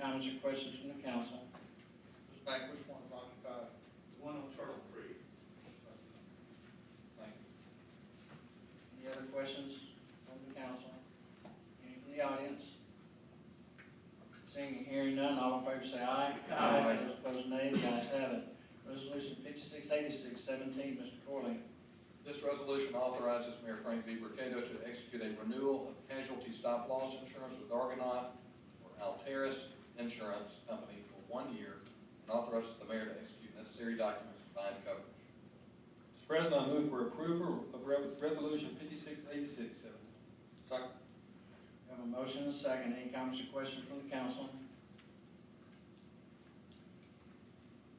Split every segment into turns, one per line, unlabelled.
comments or questions from the council?
Mr. Mack, which one is occupied? The one on Turtle Creek.
Thank you. Any other questions from the council? Any from the audience? Seeing and hearing none, all in favor say aye.
Aye.
Those opposed nay, the ayes have it. Resolution fifty-six eighty-six seventeen, Mr. Corley.
This resolution authorizes Mayor Frank V. Burkett to execute a renewal of casualty stop loss insurance with Argonaut or Alteris Insurance Company for one year and authorizes the mayor to execute necessary documents to bind coverage.
Mr. President, I move for approval of Re- Resolution 568617.
Second.
We Have a motion and a second. Any comments or questions from the council?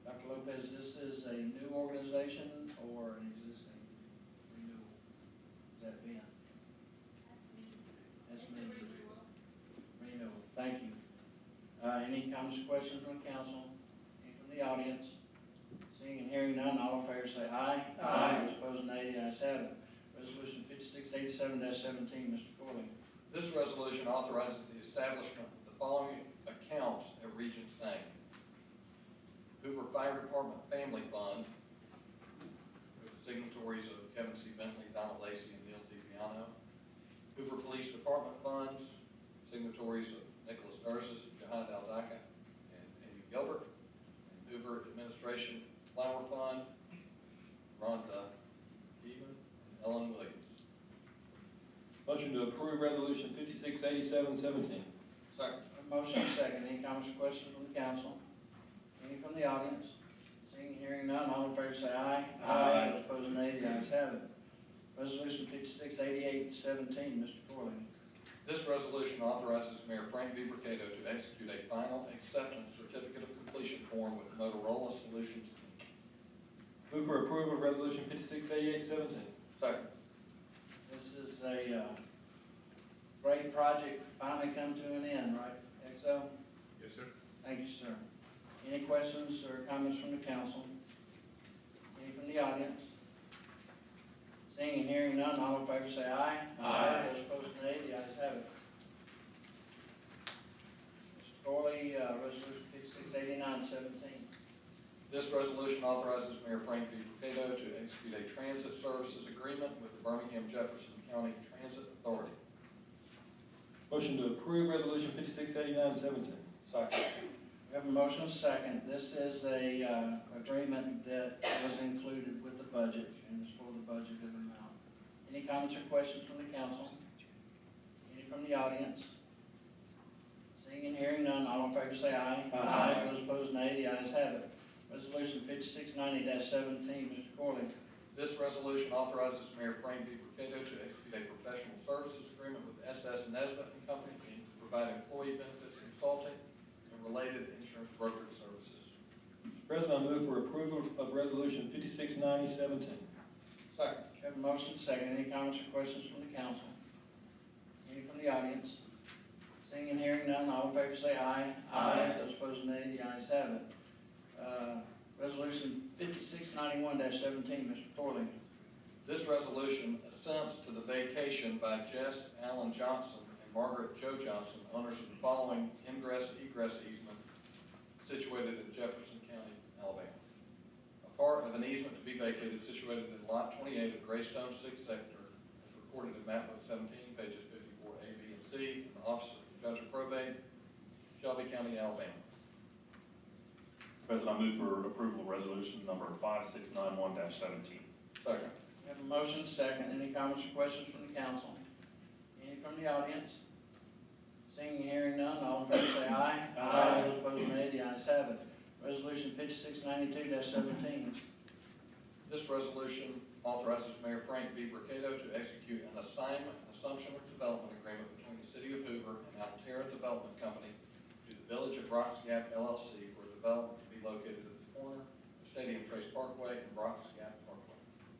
Dr. Lopez, this is a new organization or an existing renewal? Is that Ben? That's me. That's me. Renewal, thank you. Uh, any comments or questions from the council? Any from the audience? Seeing and hearing none, all in favor say aye.
Aye.
Those opposed nay, the ayes have it. Resolution fifty-six eighty-seven seventeen, Mr. Corley.
This resolution authorizes the establishment of the following accounts at Regent's name. Hoover Fire Department Family Fund, with signatories of Kevin C. Bentley, Donna Lacy, and Neil DiPiano. Hoover Police Department Funds, signatories of Nicholas Nurses, Johanna Daldaka, and Amy Gilbert. And Hoover Administration Flower Fund, Rhonda Even, and Ellen Williams.
Motion to approve Resolution 568717.
Second.
A Motion and a second, any comments or questions from the council? Any from the audience? Seeing and hearing none, all in favor say aye.
Aye.
Those opposed nay, the ayes have it. Resolution fifty-six eighty-eight seventeen, Mr. Corley.
This resolution authorizes Mayor Frank V. Mercado to execute a final acceptance certificate of completion form with Motorola Solutions.
Move for approval of Resolution 568817.
Second.
This is a, uh, great project, finally come to an end, right, Exo?
Yes, sir.
Thank you, sir. Any questions or comments from the council? Any from the audience? Seeing and hearing none, all in favor say aye.
Aye.
Those opposed nay, the ayes have it. Mr. Corley, uh, resolution fifty-six eighty-nine seventeen.
This resolution authorizes Mayor Frank V. Mercado to execute a transit services agreement with the Birmingham Jefferson County Transit Authority.
Motion to approve Resolution 568917.
Second.
We have a motion and a second. This is a, uh, agreement that was included with the budget and is for the budgeted amount. Any comments or questions from the council? Any from the audience? Seeing and hearing none, all in favor say aye.
Aye.
Those opposed nay, the ayes have it. Resolution fifty-six ninety seventeen, Mr. Corley.
This resolution authorizes Mayor Frank V. Mercado to execute a professional services agreement with SS Nesbit and Company Inc. to provide employee benefits consulting and related insurance brokerage services.
Mr. President, I move for approval of Resolution 569017.
Second.
We have a motion second. Any comments or questions from the council? Any from the audience? Seeing and hearing none, all in favor say aye.
Aye.
Those opposed nay, the ayes have it. Uh, Resolution fifty-six ninety-one seventeen, Mr. Corley.
This resolution assents to the vacation by Jess Allen Johnson and Margaret Joe Johnson, owners of the following ingress egress easement situated in Jefferson County, Alabama. A part of an easement to be vacated situated in Lot 28 of Greystone Sixth Sector is recorded in map book 17, pages 54 A, B, and C, in the office of the Judge of Probate, Shelby County, Alabama.
Mr. President, I move for approval of resolution number five six nine one seventeen.
Second.
We have a motion second. Any comments or questions from the council? Any from the audience? Seeing and hearing none, all in favor say aye.
Aye.
Those opposed nay, the ayes have it. Resolution fifty-six ninety-two seventeen,
This resolution authorizes Mayor Frank V. Mercado to execute an assignment, assumption, or development agreement between the City of Hoover and Altera Development Company to the Village of Brock's Gap LLC for development to be located at the corner of Stadium Trace Parkway and Brock's Gap Parkway.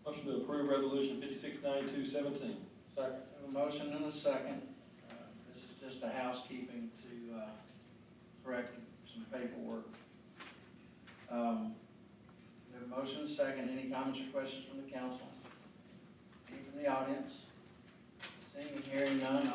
Motion to approve Resolution 569217.
Second.
Have a motion and a second. Uh, This is just a housekeeping to uh, correct some paperwork. Um, We have a motion and a second. Any comments or questions from the council? Any from the audience? Seeing and hearing none,